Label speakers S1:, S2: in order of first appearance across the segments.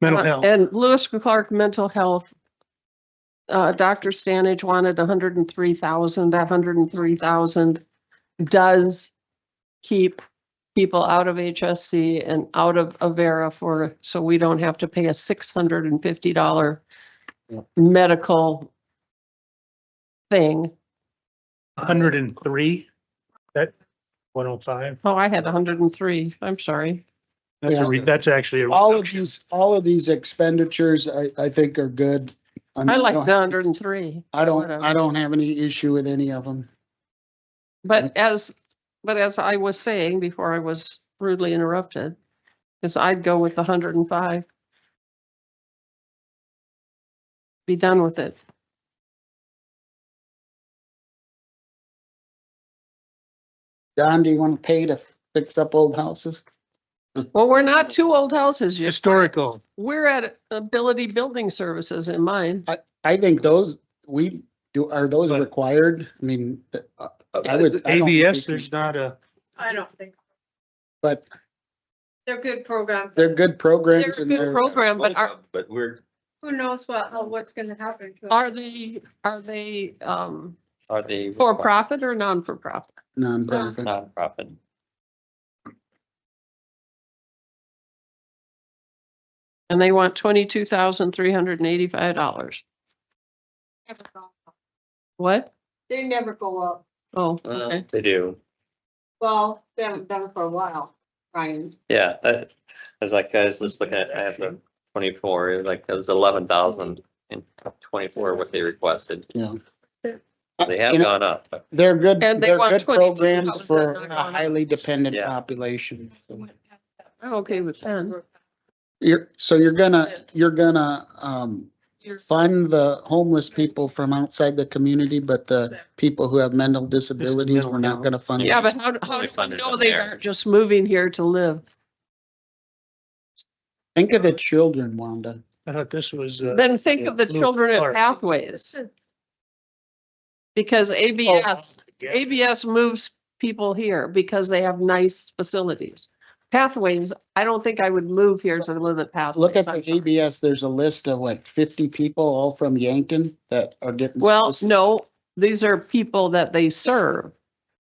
S1: mental
S2: Uh,
S1: health.
S2: And Lewis Clark Mental Health. Uh, Dr. Stanage wanted hundred and three thousand, that hundred and three thousand does keep people out of HSC and out of Avera for, so we don't have to pay a six hundred and fifty dollar medical thing.
S1: hundred and three, that one oh five,
S2: Oh, I had hundred and three, I'm sorry.
S1: that's a,
S3: Yeah.
S1: re- that's actually a.
S3: All of
S1: reduction.
S3: these, all of these expenditures, I, I think are good. mean,
S2: I like
S3: don't-
S2: the hundred and three.
S3: I don't,
S2: whatever.
S3: I don't have any issue with any of them.
S2: But as, but as I was saying before I was rudely interrupted, is I'd go with the hundred and five. Be done with it.
S3: Don, do you want to pay to fix up old houses?
S2: Well, we're not two old houses yet.
S1: Historical,
S2: We're at Ability Building Services in mine.
S3: I think those, we do, are those
S1: But-
S3: required? I mean, uh, I would. I don't think
S1: ABS,
S3: we can-
S1: there's not a,
S4: I don't think,
S3: But
S4: they're good programs.
S3: they're good
S2: They're
S3: programs
S2: a
S3: and
S2: good
S3: they're,
S2: program, but are,
S5: But we're,
S4: Who knows what, how- what's gonna happen to
S2: are
S4: us?
S2: they, are they, um,
S5: are they?
S2: for profit or non-for-profit?
S3: nonprofit.
S5: Nonprofit.
S2: And they want twenty-two thousand, three hundred and eighty-five dollars.
S4: Never go up.
S2: What?
S4: They never go up.
S2: Oh, okay.
S5: They do,
S4: Well, they haven't done it for a while, Ryan.
S5: yeah, that, as like, I was just looking at, I have the twenty-four, it was like, it was eleven thousand and twenty-four what they requested.
S2: uh,
S3: Yeah.
S5: They
S3: You
S5: have
S3: know-
S5: gone up, but
S3: They're good,
S2: And they
S3: they're
S2: want
S3: good
S2: 22
S3: programs
S2: houses
S3: for
S2: that are
S3: a
S2: gone.
S3: highly dependent
S5: Yeah.
S3: population.
S2: I'm okay with ten.
S3: You're, so you're gonna, you're gonna, um, fund the homeless people from outside the community, but the people who have mental disabilities, we're not gonna fund.
S2: Yeah, but how, how
S5: They
S2: do I
S5: funded
S2: know
S5: them
S2: they
S5: there.
S2: aren't just moving here to live?
S3: Think of the children, Wanda.
S1: I thought this was, uh,
S2: Then think of the
S1: Blue
S2: children at
S1: Clark.
S2: Pathways. Because ABS,
S1: yeah.
S2: ABS moves people here because they have nice facilities. Pathways, I don't think I would move here to live at Pathways.
S3: Look at
S2: I'm
S3: the
S2: sorry.
S3: ABS, there's a list of like fifty people all from Yankton that are getting.
S2: Well, no, these are people that they serve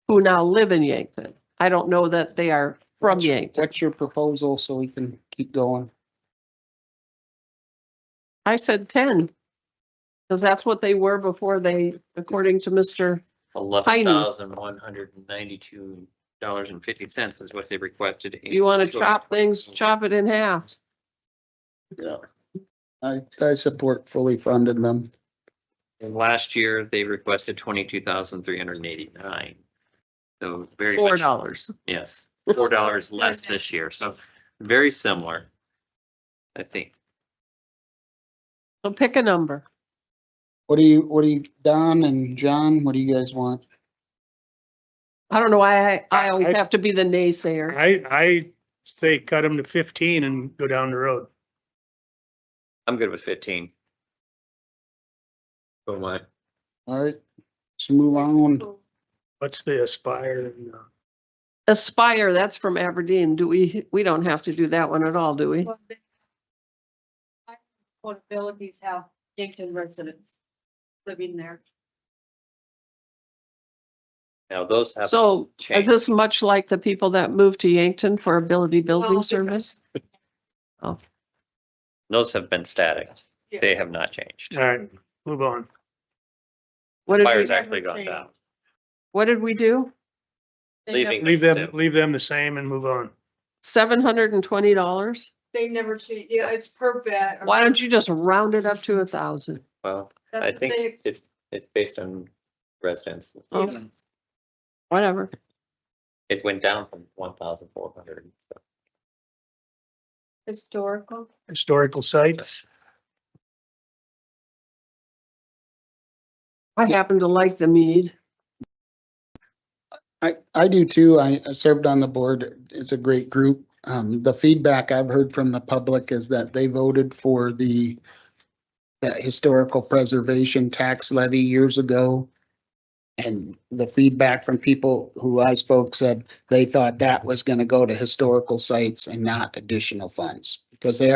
S2: who now live in Yankton. I don't know that they are from Yankton.
S3: What's your proposal so we can keep going?
S2: I said ten. Because that's what they were before they, according to Mr.
S5: eleven thousand one hundred and ninety-two dollars and fifty cents is what they requested.
S2: You want to chop things, chop it in half.
S3: Yeah. I, I support fully funded them.
S5: And last year, they requested twenty-two thousand three hundred and eighty-nine. So very
S2: Four
S5: much
S2: dollars.
S5: Yes, four dollars less this year, so very similar. I think,
S2: So pick a number.
S3: What do you, what do you, Don and John, what do you guys want?
S2: I don't know why I, I always
S1: I-
S2: have to be the naysayer.
S1: I, I say cut them to fifteen and go down the road.
S5: I'm good with fifteen. Oh my.
S3: All right, let's move on.
S1: What's the Aspire and, uh,
S2: Aspire, that's from Aberdeen. Do we, we don't have to do that one at all, do we?
S4: Well, they- What abilities have Yankton residents living there?
S5: Now, those have
S2: So is
S5: changed.
S2: this much like the people that moved to Yankton for ability building
S4: Well,
S2: service?
S5: Those have been static.
S4: Yeah.
S5: They have not changed.
S1: all right, move on.
S2: What did we,
S5: Fire's actually gone down.
S2: what did we do?
S4: They never-
S5: Leaving.
S1: Leave them, leave them the same and move on.
S2: Seven hundred and twenty dollars?
S4: They never change, yeah, it's per bed. or-
S2: Why don't you just round it up to a thousand?
S5: Well,
S4: That's
S5: I
S4: what
S5: think
S4: they-
S5: it's, it's based on residents.
S2: Oh, Whatever.
S5: It went down from one thousand four hundred.
S4: Historical.
S1: Historical sites,
S2: I happen to like the mead.
S3: I, I do too. I I served on the board. It's a great group. Um, the feedback I've heard from the public is that they voted for the that historical preservation tax levy years ago. And the feedback from people who I spoke said they thought that was gonna go to historical sites and not additional funds because they